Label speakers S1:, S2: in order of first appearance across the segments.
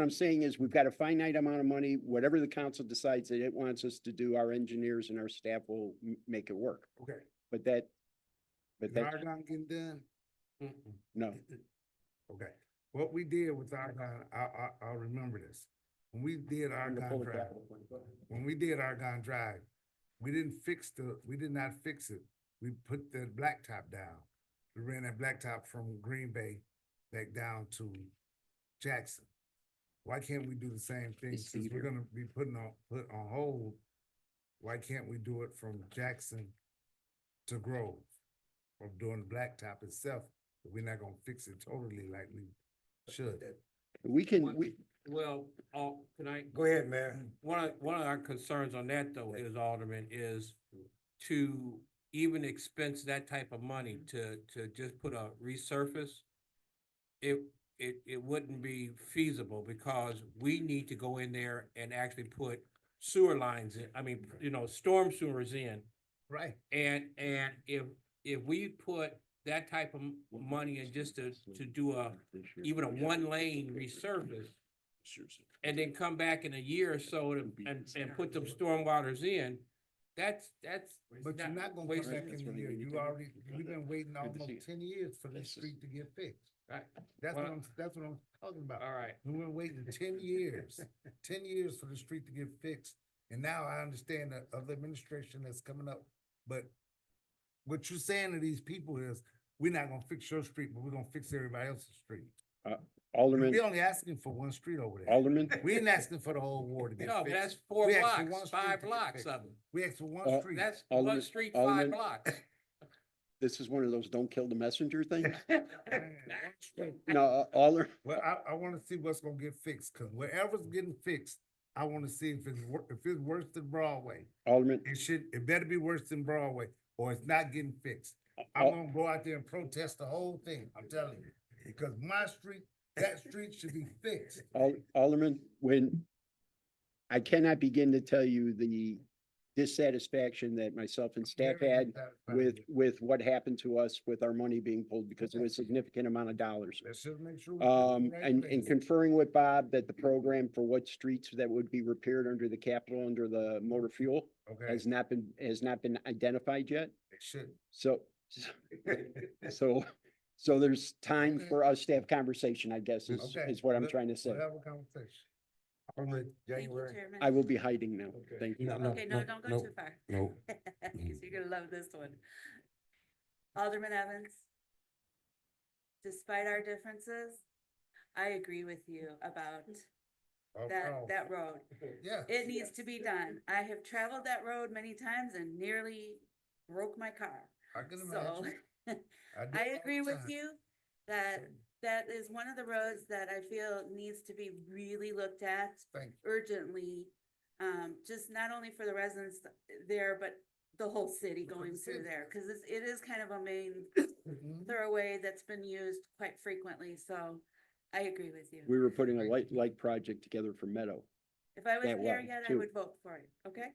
S1: What I'm saying is we've got a finite amount of money, whatever the council decides that it wants us to do, our engineers and our staff will m- make it work.
S2: Okay.
S1: But that, but
S2: Is
S1: that,
S2: Argon getting done? Mm-mm.
S1: no,
S2: Okay, what we did with Argon, I, I, I'll remember this. When we did Argon Drive, when we did Argon Drive, we didn't fix the, we did not fix it. We put the blacktop down. We ran that blacktop from Green Bay back down to Jackson. Why can't we do the same thing?
S1: It's
S2: Since we're
S1: easier.
S2: gonna be putting on, put on hold, why can't we do it from Jackson to Grove? Or doing the blacktop itself, but we're not gonna fix it totally like we should.
S1: we can,
S3: What-
S1: we,
S3: Well, oh, can I,
S4: Go ahead, Mayor.
S3: one of, one of our concerns on that though is Alderman is to even expense that type of money to, to just put a resurface. It, it, it wouldn't be feasible because we need to go in there and actually put sewer lines, in. I mean, you know, storm sewers in.
S2: Right.
S3: And, and if, if we put that type of m- money in just to, to do a, even a one lane resurface. And then come back in a year or so and, and, and put them stormwaters in, that's, that's.
S2: But you're not gonna
S3: waste
S2: come back
S3: that-
S2: in
S1: That's
S2: the
S1: what I
S2: year,
S1: mean, you
S2: you
S1: can-
S2: already,
S1: you can
S2: you've
S1: do
S2: been waiting
S1: Good to see
S2: almost
S1: you.
S2: ten years for this
S1: This is-
S2: street to get fixed.
S3: Right.
S2: That's what
S3: Well-
S2: I'm, that's what I'm talking about.
S1: uh,
S3: All right,
S2: We've been waiting ten years, ten years for the street to get fixed, and now I understand the other administration that's coming up, but what you're saying to these people is, we're not gonna fix your street, but we're gonna fix everybody else's street.
S1: Alderman,
S2: We're only asking for one street over there.
S1: Alderman,
S2: We ain't asking for the whole ward to get
S3: no, but that's
S2: fixed.
S3: four
S2: We actually want
S3: blocks,
S2: street
S3: five
S2: to get
S3: blocks
S2: fixed.
S3: of them,
S2: We ask for
S1: Uh,
S2: one street.
S3: that's
S1: Alderman-
S3: one street,
S1: Alderman-
S3: five blocks.
S1: this is one of those don't kill the messenger things.
S2: Man, one street.
S1: No, uh, Alder,
S2: Well, I, I wanna see what's gonna get fixed, cause whatever's getting fixed, I wanna see if it's wor- if it's worse than Broadway.
S1: Alderman,
S2: It should, it better be worse than Broadway, or it's not getting fixed. I'm
S1: Al-
S2: gonna go out there and protest the whole thing, I'm telling you, because my street, that street should be fixed.
S1: Al- Alderman, when I cannot begin to tell you the dissatisfaction that myself and staff had with, with what happened to us with our money being pulled because it was a significant amount of dollars.
S2: Let's just make sure. we do the
S1: Um,
S2: right
S1: and, and
S2: thing.
S1: conferring with Bob that the program for what streets that would be repaired under the capital, under the motor fuel
S2: Okay,
S1: has not been, has not been identified yet.
S2: it should.
S1: So, so, so there's time
S2: Okay.
S1: for us to have conversation, I guess, is,
S2: Okay.
S1: is what I'm
S2: Let-
S1: trying to say.
S2: We'll have a conversation.
S4: Alderman
S5: Thank you,
S4: January.
S5: Chairman.
S1: I will be hiding now.
S2: Okay.
S1: Thank you.
S4: No, no,
S5: Okay, no,
S4: no,
S5: don't go
S4: no,
S5: too far.
S4: no.
S5: 'Cause you're gonna love this one. Alderman Evans, despite our differences, I agree with you about
S2: Oh,
S5: that,
S2: oh,
S5: that road.
S2: Yeah.
S5: It needs to be done. I have traveled that road many times and nearly broke my car.
S2: I can
S5: So
S2: imagine. do
S5: I
S2: it all the
S5: agree with
S2: time.
S5: you that that is one of the roads that I feel needs to be really looked at
S2: Thank you.
S5: urgently, um, just not only for the residents there, but the whole city
S2: For the
S5: going
S2: city.
S5: through there, cause it's, it is kind of a main Mm-hmm.
S2: Mhm.
S5: thoroughway that's been used quite frequently, so I agree with you.
S1: We were putting a light, light project together for Meadow.
S5: If I was
S1: that
S5: there
S1: way,
S5: yet, I
S1: too.
S5: would vote for it, okay?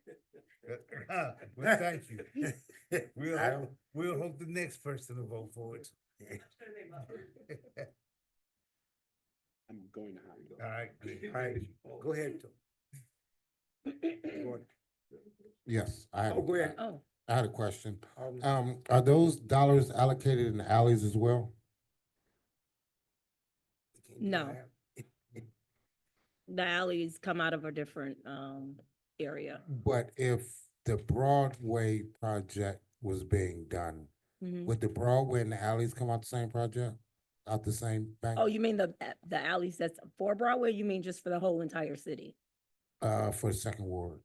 S2: Well, thank you. We'll,
S4: I-
S2: hope- we'll hope the next person to vote for it.
S1: I'm going to hide.
S2: All right. good.
S4: All right, go ahead. Go on.
S6: Yes, I had,
S4: Oh, go
S6: a-
S4: ahead.
S5: Oh.
S6: I had a question.
S4: Alderman-
S6: Um, are those dollars allocated in alleys as well?
S7: No. The alleys come out of a different, um, area.
S6: But if the Broadway project was being done,
S4: Mm-hmm.
S7: Mhm.
S6: would the Broadway and the alleys come out the same project? Out the same bank?
S7: Oh, you mean the, a- the alleys that's for Broadway? You mean just for the whole entire city?
S6: Uh, for the second ward.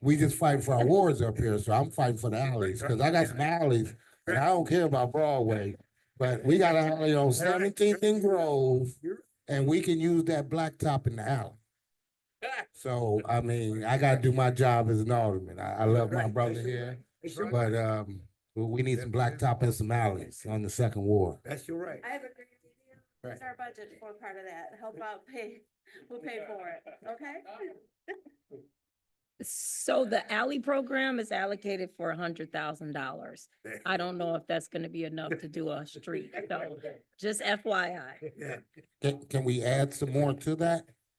S6: We just fighting for our wards up here, so I'm fighting for the alleys, cause I got some alleys, and I don't care about Broadway. But we got an alley on Seventeenth and Grove, and we can use that blacktop in the alley. So, I mean, I gotta do my job as an alderman. I, I love my
S4: Right.
S6: brother here,
S4: That's your right.
S6: but, um, we, we need some blacktop and some alleys on the second ward.
S4: That's your right.
S5: I have agreed with you. It's our budget for part of that. Help out pay, we'll pay for it, okay?
S7: So the alley program is allocated for a hundred thousand dollars. I don't know if that's gonna be enough to do a street, so just FYI.
S6: Can, can we add some more to that?